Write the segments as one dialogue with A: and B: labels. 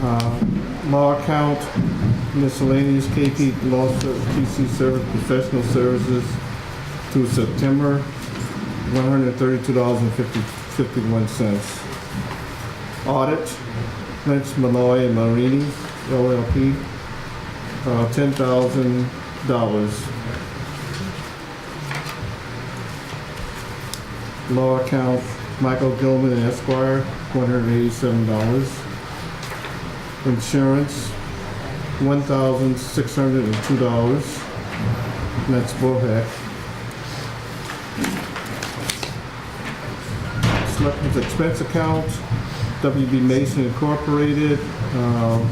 A: uh, law account, miscellaneous KP law, ser- PC service, professional services through September, one hundred thirty-two dollars and fifty, fifty-one cents. Audit, Lynch, Malloy and Marini, LLP, uh, ten thousand dollars. Law account, Michael Gilman and Esquire, one hundred eighty-seven dollars. Insurance, one thousand six hundred and two dollars. That's Bohack. Selectmen's expense account, WB Mason Incorporated, um,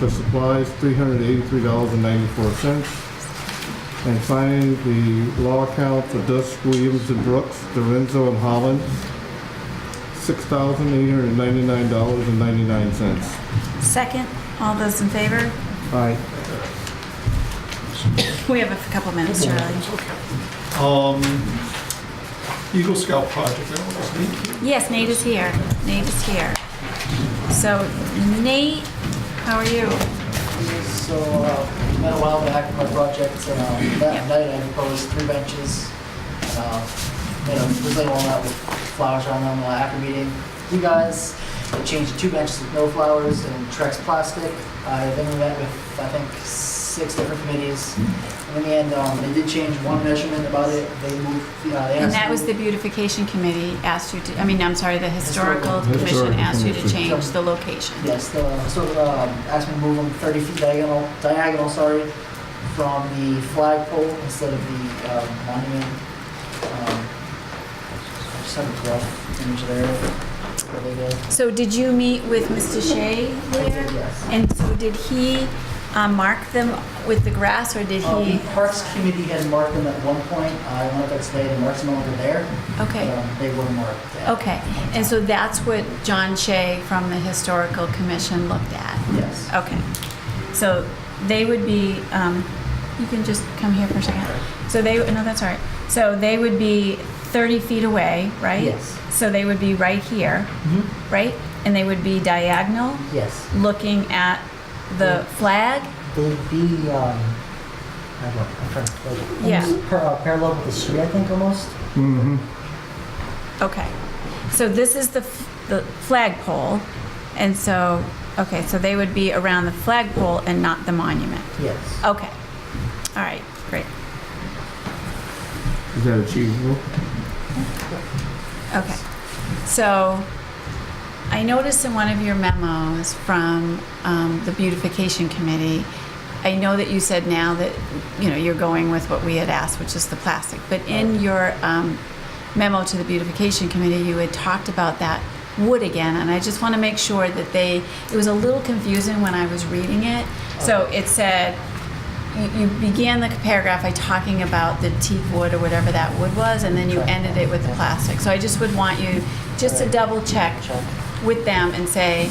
A: for supplies, three hundred eighty-three dollars and ninety-four cents. And finally, the law account for Dusk Williams and Brooks, Dorenzo and Holland, six thousand eight hundred and ninety-nine dollars and ninety-nine cents.
B: Second, all those in favor?
A: Aye.
B: We have a couple minutes, Charlie.
C: Um, Eagle Scout project, that one was neat.
B: Yes, Nate is here. Nate is here. So Nate, how are you?
D: So, uh, met a while back with my project, so uh, that night I proposed three benches. uh, Made a really one that with flowers on them uh, after meeting you guys. I changed two benches with no flowers and Trex plastic. I then we met with, I think, six different committees. And in the end, um, they did change one measurement about it. They moved, you know, they asked.
B: And that was
D: me-
B: the beautification committee asked you to, I mean, I'm sorry, the historical
A: Historical.
B: commission asked you to
A: Historical
B: change the location.
D: Yes, the, so, um, asked me to move them thirty feet diagonal, diagonal, sorry, from the flagpole instead of the, um, monument. Um, I Just have a rough image there, where they go.
B: So did you meet with Mr. Shea there?
D: Yes.
B: And so did he uh, mark them with the grass or did
D: Um,
B: he?
D: Parks Committee had marked them at one point, I went up today, the marks no longer there. but,
B: Okay,
D: um, They were marked. at-
B: okay. And so that's what John Shea from the historical commission looked at?
D: Yes.
B: Okay, so they would be, um, you can just come here for a second. So they, no, that's all right. So they would be 30 feet away, right?
D: Yes.
B: So they would be right here,
D: Mhm.
B: right? And they would be diagonal,
D: Yes,
B: looking at the flag?
D: they'd be, um, I don't know, I'm trying to.
B: Yeah.
D: almost par- uh, Parallel with the street, I think, almost.
A: Mm-hmm.
B: Okay, so this is the, f- the flagpole, and so, okay, so they would be around the flagpole and not the monument.
D: Yes.
B: Okay, all right, great.
A: Is that achievable?
B: Okay, so I noticed in one of your memos from um, the beautification committee, I know that you said now that, you know, you're going with what we had asked, which is the plastic, but in your um, memo to the beautification committee, you had talked about that wood again, and I just want to make sure that they, it was a little confusing when I was reading it. So it said, you- you began the paragraph by talking about the teak wood or whatever that wood was, and then you ended it with the plastic. So I just would want you just to double check with them and say,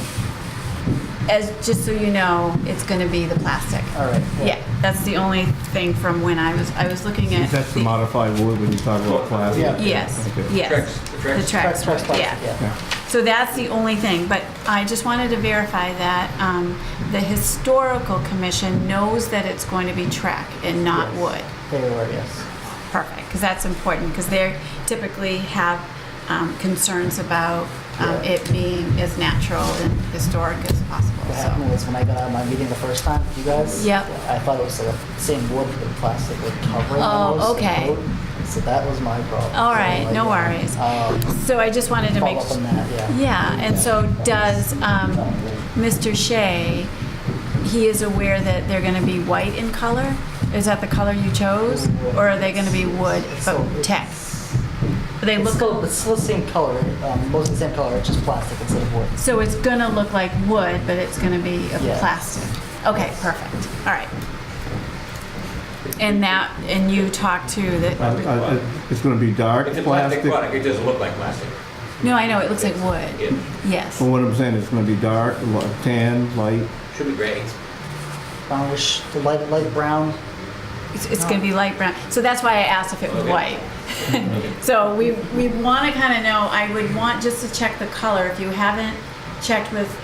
B: as, just so you know, it's gonna be the plastic.
D: All right.
B: Yeah, that's the only thing from when I was, I was looking at.
A: That's the modified wood when you talk about plastic.
D: Yeah.
B: Yes,
A: Okay.
B: yes. The Trex,
D: Trucks, trucks,
B: yeah.
D: yeah.
B: So that's the only thing, but I just wanted to verify that um, the historical commission knows that it's going to be track and not Uh,
D: Yes.
B: wood.
D: They were, yes.
B: Perfect, because that's important, because they typically have um, concerns about um,
D: Yeah.
B: it being as natural and historic as possible,
D: What happened
B: so.
D: was when I got out of my meeting the first time, you guys.
B: Yep.
D: I thought it was the same wood with the plastic wood covering.
B: Oh,
D: almost, the
B: okay.
D: coat. So that was my problem.
B: All right, no worries.
D: Um,
B: So I just wanted to make.
D: follow up on that, yeah.
B: Yeah, and so does um, Mr. Shea, he is aware that they're going to be white in color? Is that the color you chose? Or are they going to be wood,
D: So
B: but tech?
D: it's-
B: They
D: It's
B: look,
D: still, it's still the same color, um, mostly the same color, it's just plastic instead of wood.
B: so it's going to look like wood, but it's going to be of
D: Yes.
B: plastic? Okay, perfect, all right. And that, and you talked to
A: I-
B: that,
A: I- I- It's gonna be dark
E: It's a plastic
A: plastic.
E: product, it doesn't look like plastic.
B: no, I know, it looks like wood,
E: It
B: yes.
A: But what I'm saying, it's gonna be dark, li- tan, light.
E: should be gray.
D: Brownish, the light, light brown.
B: It's, it's going to be light brown. So that's why I asked if it was
E: Okay.
B: white. so we, we want to kind of know, I would want just to check the color. If you haven't checked with